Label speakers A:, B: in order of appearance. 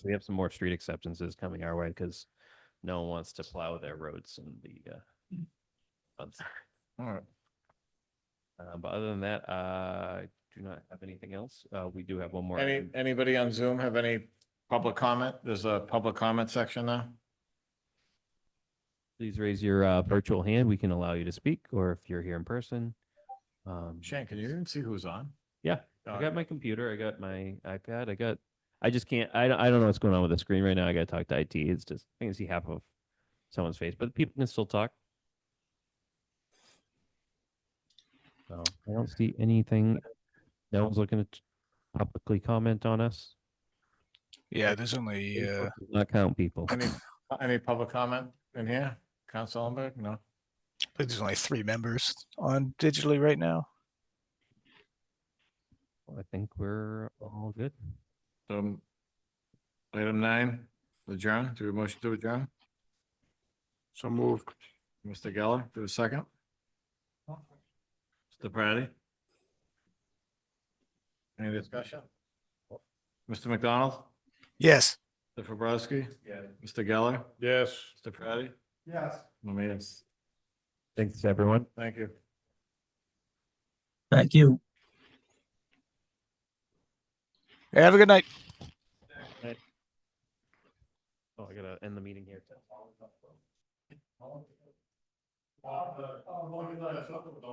A: we have some more street acceptances coming our way because no one wants to plow their roads in the, uh, months.
B: All right.
A: Uh, but other than that, uh, I do not have anything else. Uh, we do have one more.
B: Any,
A: item.
B: anybody on Zoom have any public comment? There's a public comment section now.
A: Please raise your, uh, virtual hand. We can allow you to speak, or if you're here in person. Um,
B: Shane, can you even see who's on?
A: Oh, Yeah,
B: Uh,
A: I got my computer, I got my iPad, I got, I just can't, I, don't- I don't know what's going on with the screen right now. I gotta talk to IT. It's just, I can see half of someone's face, but people can still talk. So I don't see anything. No one's looking to publicly comment on us.
C: Yeah, there's only uh,
A: Facebook does Not count people.
B: Any, any public comment in here? Council Ellenberg? No?
C: I think there's only three members on digitally right now.
A: I think we're all good.
B: So um, item nine, adjourn, do a motion to adjourn? So moved. Mr. Geller, do a second? Mr. Praddy? Any discussion? Mr. McDonald?
C: Yes.
B: Mr. Fabrowski? Yeah. Mr. Geller? Yes. Mr. Praddy? Yes. I mean, yes.
A: Thanks, everyone.
B: Thank you.
D: Thank you.
C: Have a good night.
A: Oh, I gotta end the meeting here.